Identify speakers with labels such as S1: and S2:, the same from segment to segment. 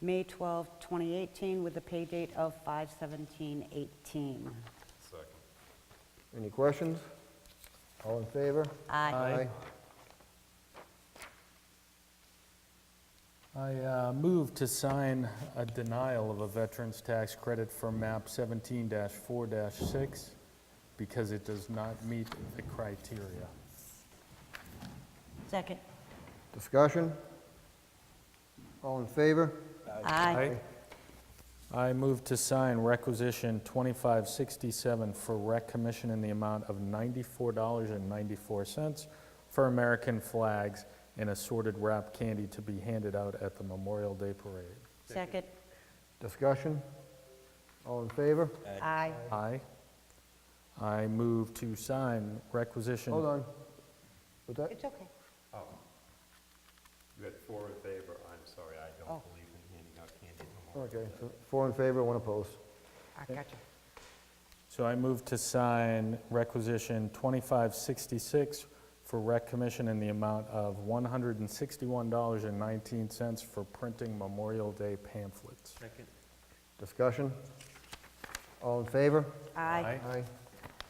S1: May 12, 2018, with a pay date of 5/17/18.
S2: Second.
S3: Any questions? All in favor?
S1: Aye.
S4: I uh, move to sign a denial of a veteran's tax credit for map 17-4-6 because it does not meet the criteria.
S1: Second.
S3: Discussion? All in favor?
S1: Aye.
S4: I move to sign requisition 2567 for rec commission in the amount of $94.94 for American flags and assorted wrapped candy to be handed out at the Memorial Day Parade.
S1: Second.
S3: Discussion? All in favor?
S1: Aye.
S4: Aye. I move to sign requisition...
S3: Hold on. What's that?
S1: It's okay.
S2: You had four in favor, I'm sorry, I
S1: Oh.
S2: don't believe in handing out candy anymore.
S3: Okay, so four in favor, one opposed.
S1: I gotcha.
S4: So I move to sign requisition 2566 for Rec Commission in the amount of $161.19 for printing Memorial Day pamphlets.
S3: Discussion? All in favor?
S1: Aye.
S3: Aye.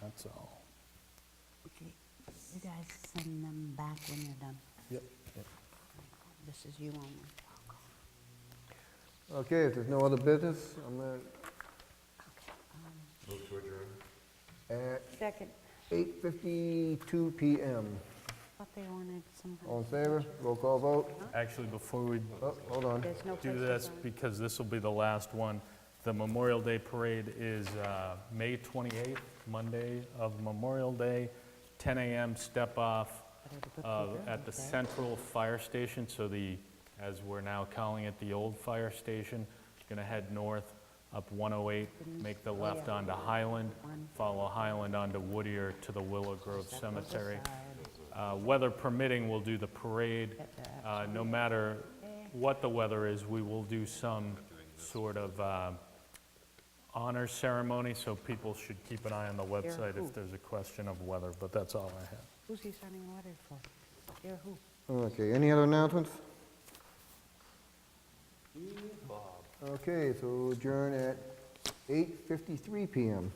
S4: That's all.
S1: Okay. You guys send them back when you're done.
S3: Yep.
S1: This is you only.
S3: Okay, if there's no other business, I'm going
S2: Move to adjourn.
S3: to, at
S1: Second.
S3: 8:52 PM.
S1: Thought they wanted some.
S3: All in favor? Roll call vote.
S4: Actually, before we
S3: Oh, hold on.
S1: There's no
S4: do
S1: places
S4: this,
S1: on-
S4: because this will be the last one, the Memorial Day Parade is uh, May 28th, Monday of Memorial Day, 10 a.m. step off. uh, at the central fire station, so the, as we're now calling it, the old fire station, going to head north up 108, make the left onto Highland, follow Highland onto Whittier to the Willow Grove Cemetery. Uh, Weather permitting, we'll do the parade. Uh, No matter what the weather is, we will do some sort of uh, honor ceremony, so people should keep an eye on the website
S1: who?
S4: if there's a question of weather, but that's all I have.
S1: Who's he signing the letter for? You're who?
S3: Okay, any other announcements? Okay, so adjourn at 8:53 PM.